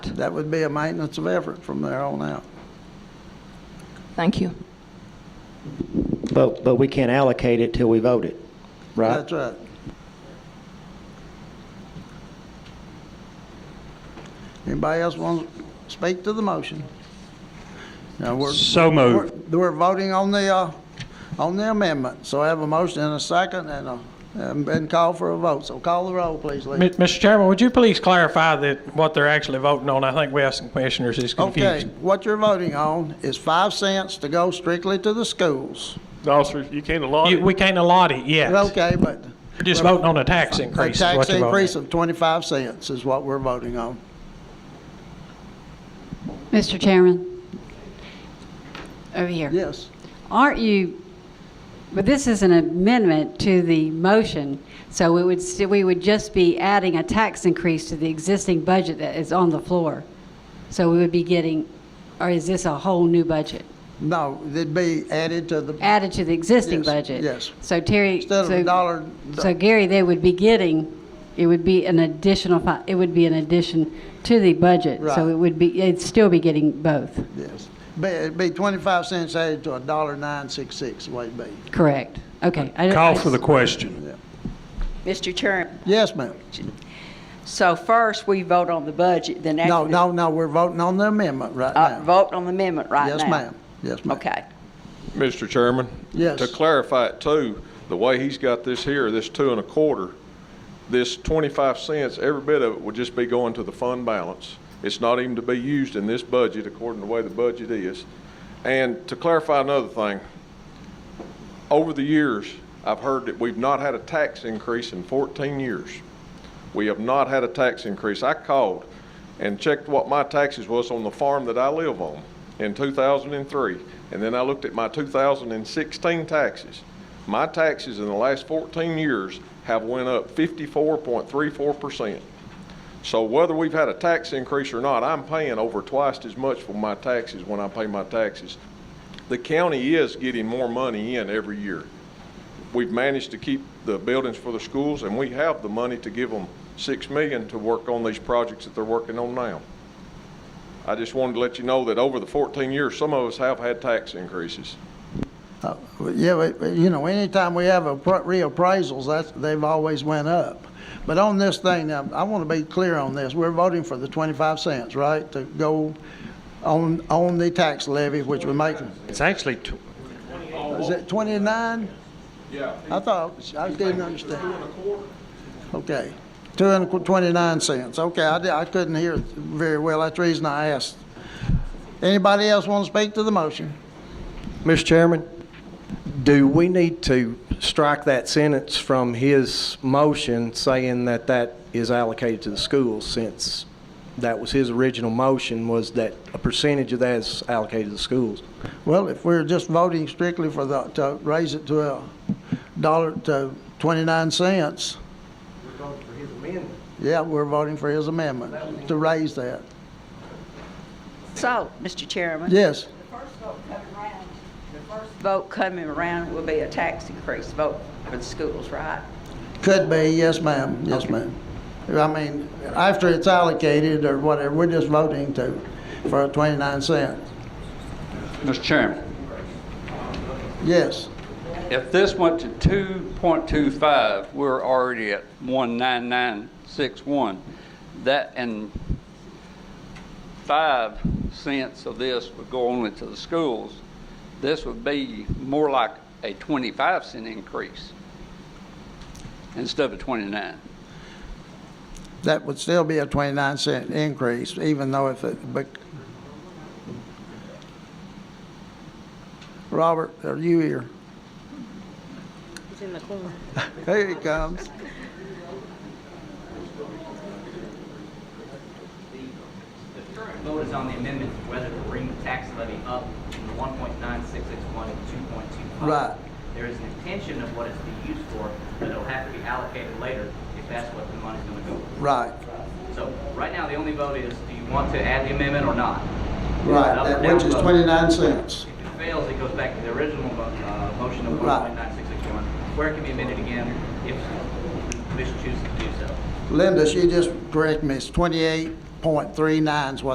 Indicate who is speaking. Speaker 1: That would be a maintenance of effort from there on out.
Speaker 2: Thank you.
Speaker 3: But, but we can't allocate it till we vote it, right?
Speaker 1: That's right. Anybody else want to speak to the motion? Now, we're.
Speaker 4: So moved.
Speaker 1: we're- We're voting on the, uh, on the amendment, so I have a motion and a second and a, and been called for a vote, so call the roll, please,
Speaker 5: Mi-
Speaker 1: Lee.
Speaker 5: Mr. Chairman, would you please clarify that what they're actually voting on? I think we have some commissioners who's
Speaker 1: Okay,
Speaker 5: confused.
Speaker 1: what you're voting on is five cents to go strictly to the schools.
Speaker 4: Officer, you can't allot
Speaker 5: You-
Speaker 4: it.
Speaker 5: We can't allot it yet.
Speaker 1: Okay, but.
Speaker 5: We're just voting on a tax increase. is
Speaker 1: A
Speaker 5: what
Speaker 1: tax
Speaker 5: you're voting on.
Speaker 1: increase of 25 cents is what we're voting on.
Speaker 6: Mr. Chairman, over here.
Speaker 1: Yes.
Speaker 6: Aren't you, but this is an amendment to the motion, so it would, sti- we would just be adding a tax increase to the existing budget that is on the floor. So we would be getting, or is this a whole new budget?
Speaker 1: No, it'd be added to the,
Speaker 6: Added to the existing
Speaker 1: Yes,
Speaker 6: budget?
Speaker 1: yes.
Speaker 6: So Terry.
Speaker 1: instead of
Speaker 6: so-
Speaker 1: a dollar,
Speaker 6: So Gary, they would be getting, it would be an additional, fi- it would be an addition to the budget. So
Speaker 1: Right.
Speaker 6: it would be, it'd still be getting both,
Speaker 1: yes. Be- It'd be 25 cents added to a dollar 966, the way it be.
Speaker 6: correct? Okay. I-
Speaker 4: Call
Speaker 6: I-
Speaker 4: for the question.
Speaker 7: Mr. Chairman,
Speaker 1: Yes, ma'am.
Speaker 7: so first we vote on the budget, then after.
Speaker 1: No, no, no, we're voting on the amendment right
Speaker 7: Uh,
Speaker 1: now.
Speaker 7: Vote on the amendment right now.
Speaker 1: Yes, ma'am. Yes, ma'am.
Speaker 7: Okay.
Speaker 8: Mr. Chairman?
Speaker 1: Yes.
Speaker 8: To clarify it too, the way he's got this here, this two and a quarter, this 25 cents, every bit of it would just be going to the fund balance. It's not even to be used in this budget according to the way the budget is. And to clarify another thing, over the years, I've heard that we've not had a tax increase in 14 years. We have not had a tax increase. I called and checked what my taxes was on the farm that I live on in 2003, and then I looked at my 2016 taxes. My taxes in the last 14 years have went up 54.34%. So whether we've had a tax increase or not, I'm paying over twice as much for my taxes when I pay my taxes. The county is getting more money in every year we've managed to keep the buildings for the schools, and we have the money to give them six million to work on these projects that they're working on now. I just wanted to let you know that over the fourteen years, some of us have had tax increases.
Speaker 1: Uh, Yeah, but, but, you know, anytime we have a pro- reappraisals, that's, they've always went up. But on this thing, now, I want to be clear on this. We're voting for the 25 cents, right, to go on, on the tax levy, which would make,
Speaker 4: It's actually, tw-
Speaker 1: is it 29?
Speaker 8: Yeah.
Speaker 1: I thought, I didn't understand. Okay, two and a qu- 29 cents. Okay, I di- I couldn't hear it very well. That's the reason I asked. Anybody else want to speak to the motion?
Speaker 9: Mr. Chairman, do we need to strike that sentence from his motion saying that that is allocated to the schools since that was his original motion was that a percentage of that is allocated to the schools?
Speaker 1: Well, if we're just voting strictly for the, to raise it to a dollar, to 29 cents,
Speaker 9: We're voting for his amendment.
Speaker 1: yeah, we're voting for his amendment to raise that.
Speaker 7: So, Mr. Chairman.
Speaker 1: Yes,
Speaker 7: First vote coming around, the first vote coming around will be a tax increase vote for the schools, right?
Speaker 1: could be, yes, ma'am, yes, ma'am. I mean, after it's allocated or whatever, we're just voting to, for a 29 cents.
Speaker 10: Mr. Chairman,
Speaker 1: Yes,
Speaker 10: if this went to 2.25, we're already at 19961. That, and five cents of this would go only to the schools. This would be more like a 25 cent increase instead of 29.
Speaker 1: that would still be a 29 cent increase, even though if it, but. Robert, are you here?
Speaker 2: He's in the corner.
Speaker 1: Here he comes.
Speaker 11: The current vote is on the amendment to whether to bring the tax levy up from the 1.9661 to 2.25.
Speaker 1: Right.
Speaker 11: There is an intention of what it's to be used for, but it'll have to be allocated later if that's what the money's going to go for.
Speaker 1: Right,
Speaker 11: So right now, the only vote is, do you want to add the amendment or not?
Speaker 1: right, that- which is 29 cents.
Speaker 11: If it fails, it goes back to the original mo- uh, motion of
Speaker 1: Right.
Speaker 11: 1.9661, where it can be amended again if the commission chooses to do so.
Speaker 1: Linda, she just corrected me, it's 28 point three nines what